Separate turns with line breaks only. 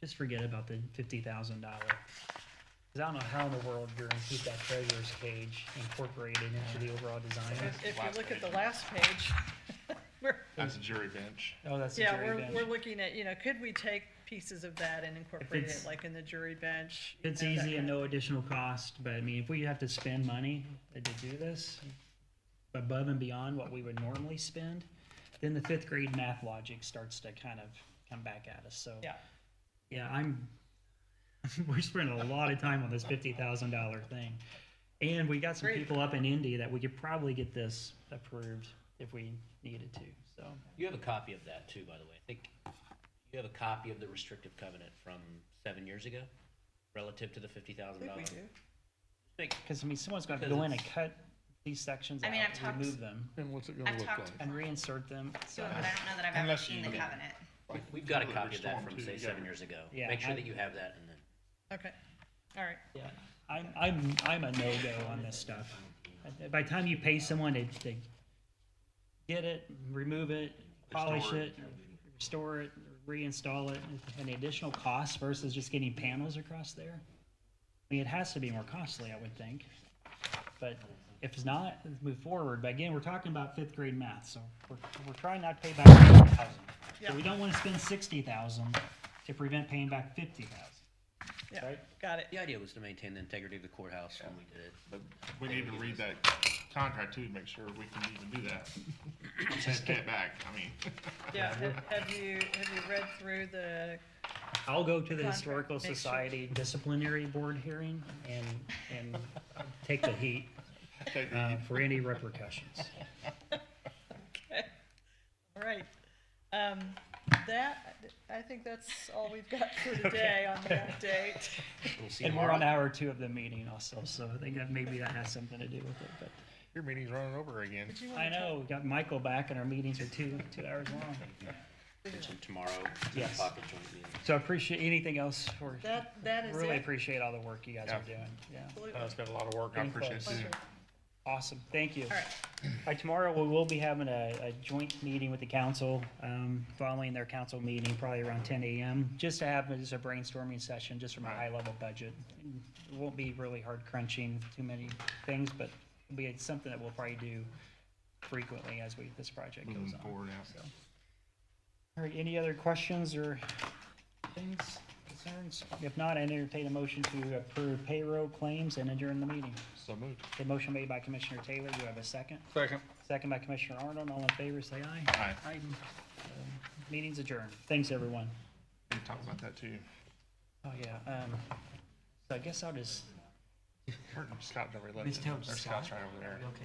just forget about the fifty thousand dollar. Cause I don't know how in the world you're gonna keep that treasurer's cage incorporated into the overall design.
If if you
Last
look at the
page.
last page, we're,
That's a jury bench.
Oh, that's the
yeah,
jury
we're,
bench.
we're looking at, you know, could we take pieces of that and incorporate it,
it's-
like in the jury bench? you
It's
know, that
easy and
kind of-
no additional cost, but I mean, if we have to spend money to do this above and beyond what we would normally spend, then the fifth grade math logic starts to kind of come back at us, so.
Yeah,
Yeah, I'm, we're spending a lot of time on this fifty thousand dollar thing. And we got some
Great.
people up in Indy that we could probably get this approved if we needed to, so.
You have a copy of that too, by the way. I think you have a copy of the restrictive covenant from seven years ago relative to the fifty
I
thousand
think we
dollars.
do.
Cause I mean, someone's gonna have to
Because
go in and
it's-
cut these sections
I
out,
mean, I've talked-
remove them,
And what's it
I've
gonna look
talked-
like?
and reinsert them,
So,
so.
but I don't know that I've ever
Uh, Unless
seen
you-
the covenant.
We've got a
Like,
copy of that
Storm
from
two,
say
you
seven
gotta-
years ago.
Yeah,
Make sure
I-
that you have that and then.
Okay, all right.
Yeah, I'm, I'm, I'm a no-go on this stuff. By the time you pay someone to, to get it, remove it, polish
Restore
it,
it.
restore it, reinstall it, and the additional cost versus just getting panels across there? I mean, it has to be more costly, I would think. But if it's not, let's move forward. But again, we're talking about fifth grade math, so we're, we're trying not to pay back fifty thousand. So we
Yeah.
don't wanna spend sixty thousand to prevent paying back fifty thousand.
Yeah,
Right.
got it.
The idea was to maintain the integrity of the courthouse when we did it.
But we need to read that contract too, to make sure we can even do that. Just get back, I mean.
Yeah, ha- have you, have you read through the,
I'll go to the
Contract,
Historical
make sure.
Society disciplinary board hearing and, and take the heat
take the-
uh, for any repercussions.
okay, all right. Um, that, I think that's all we've got for today on the update.
We'll see
And we're on
tomorrow.
hour two of the meeting also, so I think that maybe that has something to do with it,
Your meeting's running over again.
Did you
but
wanna
I know, we got Michael back and our meetings are two, two hours long.
Mention Tomorrow, ten
Yes.
o'clock at joint meeting.
So I appreciate, anything else for,
talk- That, that is it.
really appreciate all the work you guys are doing, yeah.
Absolutely.
Uh, it's been a lot of work, I appreciate it too.
Pleasure.
Awesome, thank you.
All right.
By tomorrow, we will be having a, a joint meeting with the council, um, following their council meeting, probably around ten AM, just to have, just a brainstorming session, just from a high-level budget. It won't be really hard crunching too many things, but it'll be something that we'll probably do frequently as we, this project goes
Moving
on.
forward now.
All right, any other questions or things, concerns? If not, I entertain a motion to approve payroll claims and adjourn the meeting.
So moved.
The motion made by Commissioner Taylor, do you have a second?
Second.
Second by Commissioner Arnold, all in favor, say aye.
Aye.
Aye. Um, Meeting's adjourned. Thanks, everyone.
We talked about that too.
Oh, yeah, um, so I guess I'll just
Scott's over there.
Miss Taylor,
There's
Scott?
Scott's right over there.